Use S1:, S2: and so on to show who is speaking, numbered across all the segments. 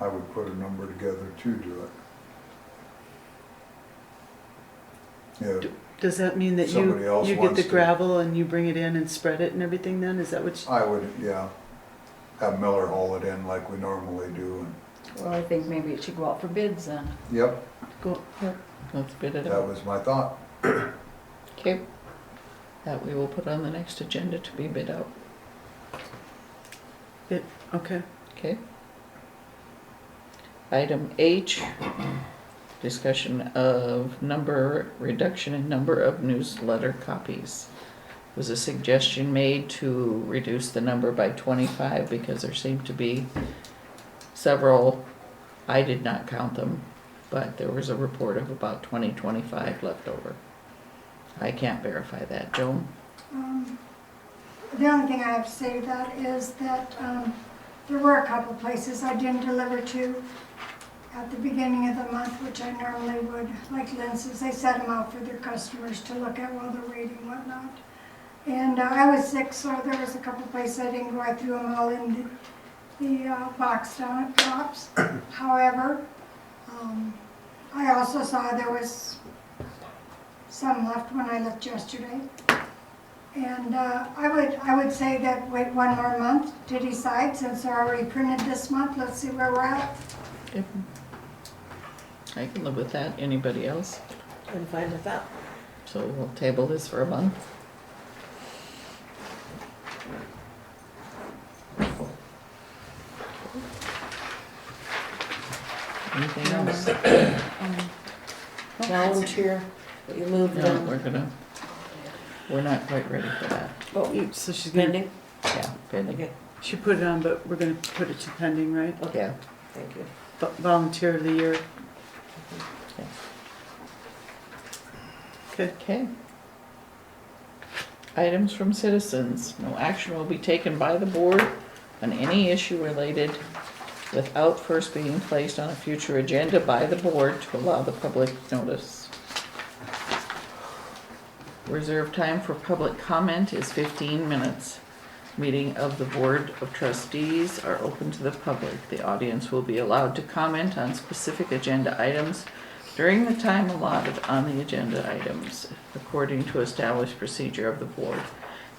S1: I would put a number together to do it. Yeah,
S2: Does that mean that
S1: Somebody
S2: you,
S1: else
S2: you get
S1: wants
S2: the
S1: to-
S2: gravel and you bring it in and spread it and everything then? Is that what you,
S1: I would, yeah, have Miller haul it in like we normally do, and,
S3: Well, I think maybe it should go out for bids then.
S1: yep,
S2: go,
S4: Let's bid it
S1: that
S4: out.
S1: was my thought.
S4: Okay. That we will put on the next agenda to be bid out,
S2: okay.
S4: okay? Item H, discussion of number, reduction in number of newsletter copies. Was a suggestion made to reduce the number by twenty-five because there seemed to be several, I did not count them, but there was a report of about 20, 25 left over. I can't verify that, Joan?
S5: Um, The only thing I have to say to that is that um, there were a couple places I didn't deliver to at the beginning of the month, which I normally would, like Lynn says, they set them out for their customers to look at while they're waiting and whatnot. And uh, I was sick, so there was a couple places I didn't go, I threw them all in the- the uh, box down at Tops. However, um, I also saw there was some left when I left yesterday. And uh, I would, I would say that wait one more month to decide, since they're already printed this month, let's see where we're at.
S4: Yep. I can live with that. Anybody else?
S2: I'm fine with that.
S4: So we'll table this for a month. Anything else?
S6: volunteer, but you moved
S4: No, we're
S6: them.
S4: gonna, we're not quite ready for that.
S6: Oh, you
S2: So she's gonna,
S6: pending?
S4: Yeah, pending.
S6: Okay,
S2: she put it on, but we're gonna put it to pending, right?
S4: Yeah.
S6: thank you.
S2: Vo- Volunteer of the year. Okay,
S4: Okay. Items from citizens. No action will be taken by the board on any issue related without first being placed on a future agenda by the board to allow the public notice. Reserve time for public comment is fifteen minutes. Meeting of the Board of Trustees are open to the public. The audience will be allowed to comment on specific agenda items during the time allotted on the agenda items according to established procedure of the board.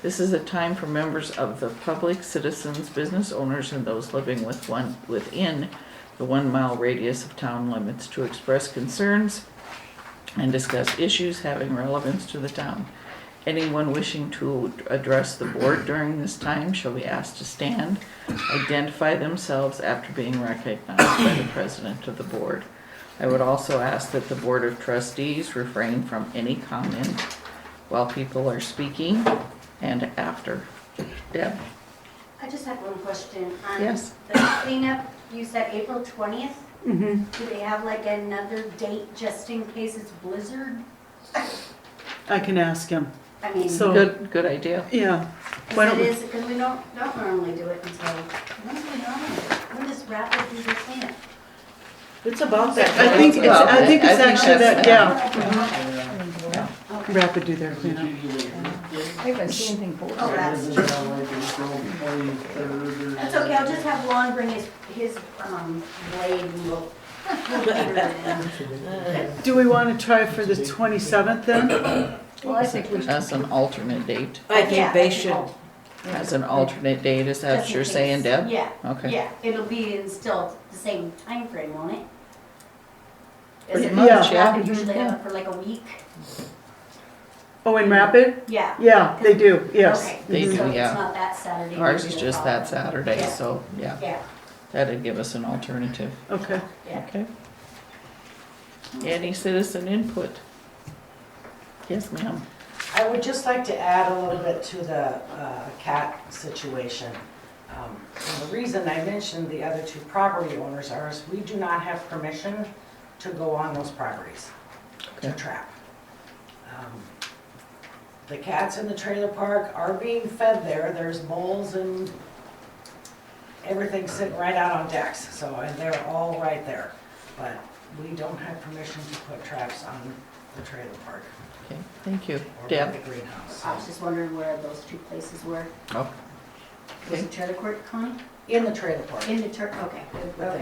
S4: This is a time for members of the public, citizens, business owners, and those living with one, within the one-mile radius of town limits to express concerns and discuss issues having relevance to the town. Anyone wishing to address the board during this time shall be asked to stand, identify themselves after being recognized by the president of the board. I would also ask that the Board of Trustees refrain from any comment while people are speaking and after. Deb?
S7: I just have one question. On
S4: Yes.
S7: The cleanup, you said April 20th? Do they have like another date just in case it's blizzard?
S2: I can ask him.
S7: I mean,
S2: So-
S4: Good, good idea.
S2: Yeah. Why
S7: because
S2: don't
S7: it
S2: we,
S7: is, because we don't, don't normally do it until, when do we normally do it? When does rapid do the cleanup?
S6: It's about that.
S2: I think it's, I think it's actually that, yeah. Rapid do their cleanup.
S3: I haven't seen anything for it.
S7: Oh, that's, that's okay, I'll just have Lon bring his, his um, blade and we'll. we'll get it in.
S2: Do we wanna try for the twenty-seventh then?
S3: Well, I think we should.
S4: As an alternate date,
S6: I
S7: Yeah,
S6: think they
S7: think
S6: should,
S7: I'll-
S4: as an alternate date, is that
S7: just
S4: what
S7: in
S4: you're
S7: case.
S4: saying, Deb?
S7: Yeah.
S4: Okay.
S7: Yeah, it'll be in still the same time frame, won't it?
S4: Pretty
S7: Isn't
S2: much,
S7: that
S4: yeah. Mhm.
S7: Usually have it for like a week,
S2: Oh, in Rapid?
S7: yeah.
S2: Yeah, they do, yes.
S7: Okay,
S4: They do,
S7: so it's
S4: yeah.
S7: not that Saturday.
S4: Ours
S7: maybe
S4: is
S7: the
S4: just that
S7: following.
S4: Saturday,
S7: Yeah.
S4: so, yeah,
S7: Yeah,
S4: that'd give us an alternative,
S2: Mm-hmm. Okay.
S7: yeah.
S4: okay? Any citizen input? Yes, ma'am.
S6: I would just like to add a little bit to the uh, cat situation. Um, and The reason I mentioned the other two property owners are is we do not have permission to go on those properties to
S4: Okay.
S6: trap. Um, The cats in the trailer park are being fed there, there's moles and everything sitting right out on decks, so, and they're all right there. But we don't have permission to put traps on the trailer park
S4: Okay, thank you.
S6: or by
S4: Deb?
S6: the greenhouse.
S7: I was just wondering where those two places were.
S4: Oh.
S7: Was it Charter Court Connie?
S6: In the trailer park.
S7: In the Turk, okay. With the-